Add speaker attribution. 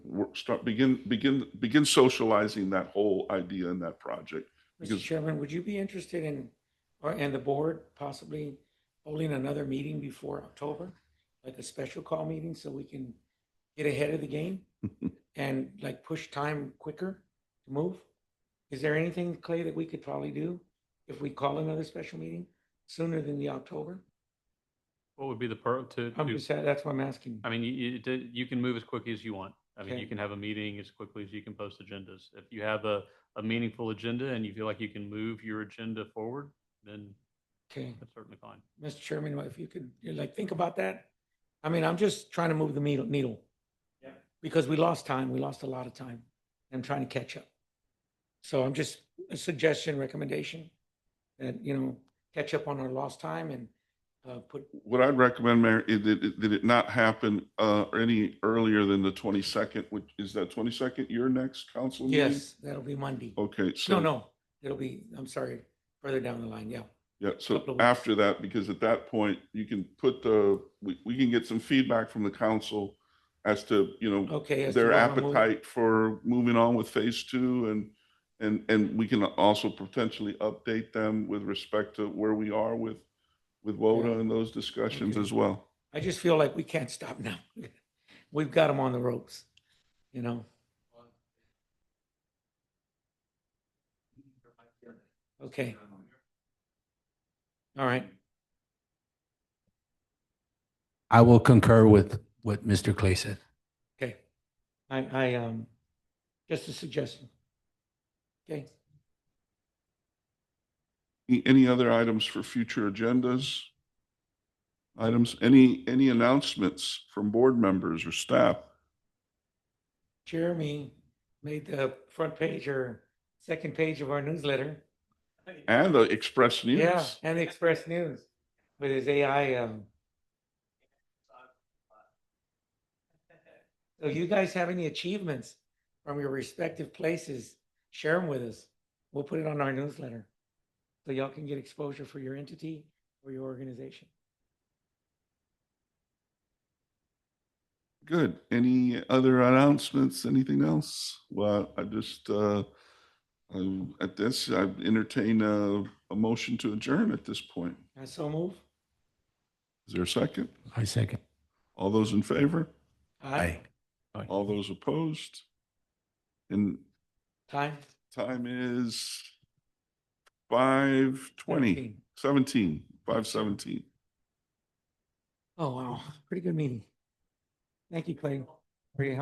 Speaker 1: work, start, begin, begin, begin socializing that whole idea and that project.
Speaker 2: Mr.
Speaker 1: Because-
Speaker 2: Chairman, would you be interested in, or, and the board possibly holding another meeting before October? Like a special call meeting so we can get ahead of the game and like push time quicker to move? Is there anything, Clay, that we could probably do if we call another special meeting sooner than the October?
Speaker 3: What would be the per, to,
Speaker 2: I'm
Speaker 3: do-
Speaker 2: just, that's what I'm asking.
Speaker 3: I mean, you, you, d- you can move as quickly as you want. I mean,
Speaker 2: Okay.
Speaker 3: you can have a meeting as quickly as you can post agendas. If you have a, a meaningful agenda and you feel like you can move your agenda forward, then
Speaker 2: Okay,
Speaker 3: that's certainly fine.
Speaker 2: Mr. Chairman, if you could, you like, think about that. I mean, I'm just trying to move the needle, needle.
Speaker 3: Yeah.
Speaker 2: Because we lost time, we lost a lot of time. I'm trying to catch up. So I'm just a suggestion, recommendation that, you know, catch up on our lost time and uh, put,
Speaker 1: What I'd recommend, Mayor, is that, it- that it not happen, uh, any earlier than the twenty-second, which is that twenty-second your next council meeting?
Speaker 2: yes, that'll be Monday.
Speaker 1: Okay, Oh, so.
Speaker 2: No, no, it'll be, I'm sorry, further down the line, yeah.
Speaker 1: Yeah,
Speaker 2: couple
Speaker 1: so
Speaker 2: of weeks.
Speaker 1: after that, because at that point, you can put the, we, we can get some feedback from the council as to, you know,
Speaker 2: Okay. as to
Speaker 1: their
Speaker 2: where I'm moving.
Speaker 1: appetite for moving on with phase two and, and, and we can also potentially update them with respect to where we are with, with WODA and those discussions
Speaker 2: Okay.
Speaker 1: as well.
Speaker 2: I just feel like we can't stop now. We've got them on the ropes, you know? Okay. All right,
Speaker 4: I will concur with what Mr. Clay said.
Speaker 2: okay. I, I, um, just a suggestion. Okay,
Speaker 1: Any- Any other items for future agendas? Items, any, any announcements from board members or staff?
Speaker 2: Jeremy made the front page or second page of our newsletter.
Speaker 1: And the Express News?
Speaker 2: Yeah, and the Express News with his AI, um. So you guys have any achievements from your respective places? Share them with us. We'll put it on our newsletter. So y'all can get exposure for your entity or your organization.
Speaker 1: Good. Any other announcements? Anything else? Well, I just, uh, um, at this, I entertain a, a motion to adjourn at this point.
Speaker 2: And so move.
Speaker 1: Is there a second?
Speaker 4: I second.
Speaker 1: All those in favor?
Speaker 2: Aye.
Speaker 1: All those opposed? And
Speaker 2: Time.
Speaker 1: time is five twenty,
Speaker 2: 13.
Speaker 1: seventeen, five seventeen.
Speaker 2: Oh, wow. Pretty good meeting. Thank you, Clay, for your help.